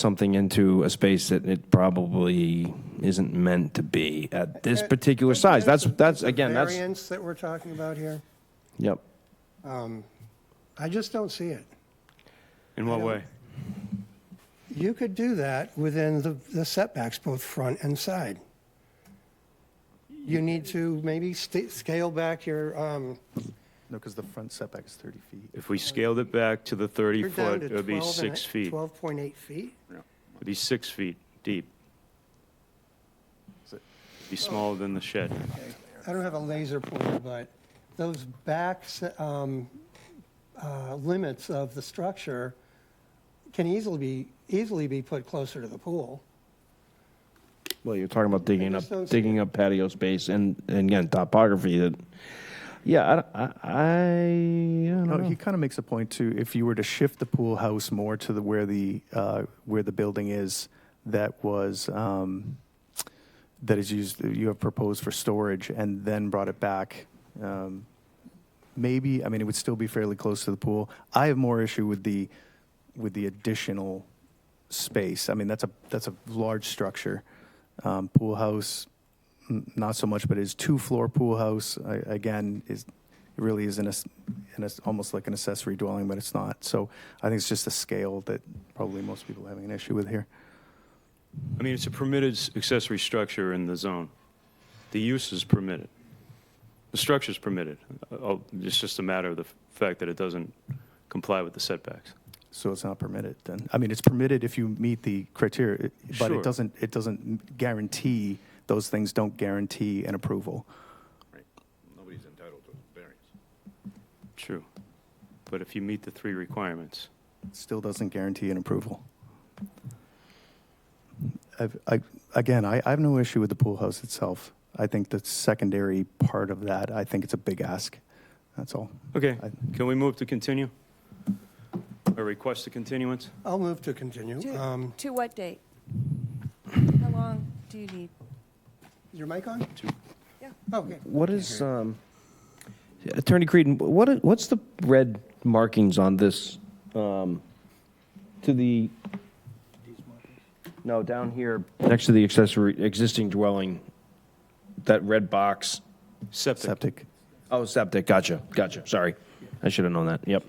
something into a space that it probably isn't meant to be at this particular size. That's, that's, again, that's, Variance that we're talking about here, yep. I just don't see it. In what way? You could do that within the the setbacks, both front and side. You need to maybe sta- scale back your, um, No, because the front setback is 30 feet. If we scaled it back to the you're 30 down foot, to it would be 12 and six a- feet. It 12.8 feet? would be six feet deep. So- Be smaller than the shed. I don't have a laser pointer, but those back se- um, uh, limits of the structure can easily be, easily be put closer to the pool. Well, you're talking about digging up, just don't see digging up patio space and, and again, topography that, yeah, I, I, I don't No, know. he kind of makes a point too, if you were to shift the pool house more to the, where the, uh, where the building is that was, um, that is used, you have proposed for storage and then brought it back, um, maybe, I mean, it would still be fairly close to the pool. I have more issue with the, with the additional space. I mean, that's a, that's a large structure. Um, pool house, n- not so much, but is two-floor pool house, I, again, is, it really is an, ass- an, ass- almost like an accessory dwelling, but it's not. So I think it's just the scale that probably most people are having an issue with here. I mean, it's a permitted s- accessory structure in the zone. The use is permitted. The structure's permitted. Uh, oh, It's just a matter of the f- fact that it doesn't comply with the setbacks. So it's not permitted then. I mean, it's permitted if you meet the criteria, but Sure. it doesn't, it doesn't guarantee, those things don't guarantee an approval. Nobody's entitled to variance. True. But if you meet the three requirements, It Still doesn't guarantee an approval. I've, I, again, I, I have no issue with the pool house itself. I think the secondary part of that, I think it's a big ask. That's all. Okay, I- can we move to continue? Or request a continuance? I'll move to continue. To Um, to what date? How long do you need? is Your mic on? Yeah. Okay. What is, um, Attorney Creedon, what, i- what's the red markings on this, um, to the? No, down here, next to the accessory, existing dwelling, that red box. Septic. Septic. Oh, septic, gotcha, gotcha, sorry. I should have known that, yep.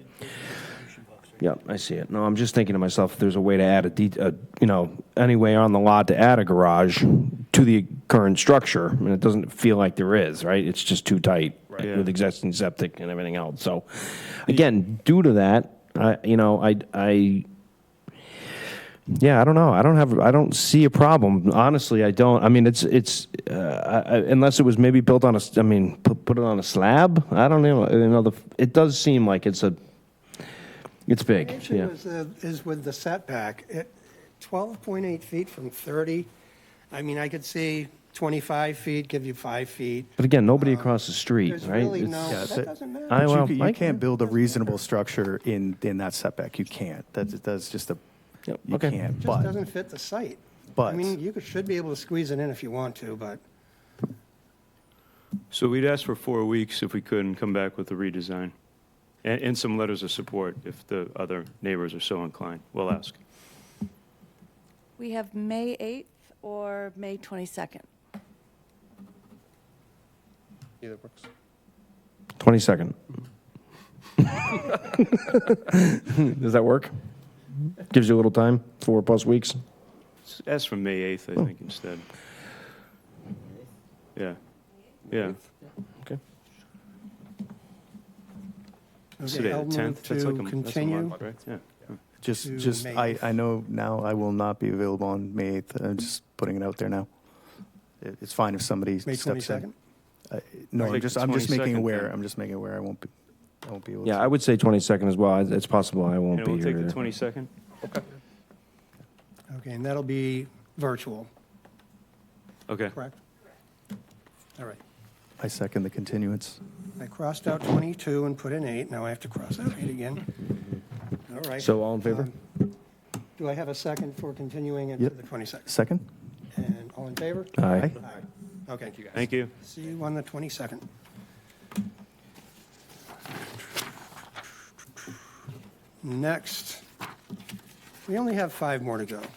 Yep, I see it. No, I'm just thinking to myself, if there's a way to add a, de- a, you know, any way on the lot to add a garage to the current structure, and it doesn't feel like there is, right? It's just too tight Right. with existing septic and everything else. So, again, due to that, I, you know, I, I, yeah, I don't know. I don't have. I don't see a problem. Honestly, I don't. I mean, it's it's uh, I, I- unless it was maybe built on a. s- I mean, put, put it on a slab. I don't know. You know, the, it does seem like it's a. It's big. The issue Yeah. is, uh, is with the setback. It- 12.8 feet from 30, I mean, I could see 25 feet, give you five feet. But again, nobody across the street, um, There's right? really It's- no, Yeah, that that- doesn't I matter. But well, you, ca- I you can't build a reasonable structure in, in that setback. You can't. That's, that's just a, Mm. Yep, you okay. can't. It just But doesn't fit the site. I But- mean, you could- should be able to squeeze it in if you want to, but So we'd ask for four weeks if we could and come back with a redesign. And, and some letters of support if the other neighbors are so inclined. We'll ask. We have May 8th or May 22nd? either works. Twenty second. Does that work? Gives you a little time. Four plus weeks. S- Ask for May 8th, Oh. I think, instead. Yeah, yeah. Okay. Okay, It's Today, the I'll move 10th. That's like a- to that's a month, continue. right? Yeah. just, to just, May I, eighth. I know now I will not be available on May 8th. I'm just putting it out there now. It- It's fine if somebody May steps in. 22nd? No, Like I'm just, the I'm just 22nd making aware. then. I'm just making aware. I won't be, I won't be able to. Yeah, I would say twenty second as well. It's possible I won't And be we'll take here. the 22nd? Okay, and that'll be virtual, Okay. correct? All right. I second the continuance. I crossed out 22 and put in 8, now I have to cross out 8 again. All right. So all in favor? Um, Do I have a second for continuing it to Yep. the 22nd? Second? And all in favor? Aye. Aye. Aye. Okay. Thank you, guys. Thank you. See you on the 22nd. Next, we only have five more to go.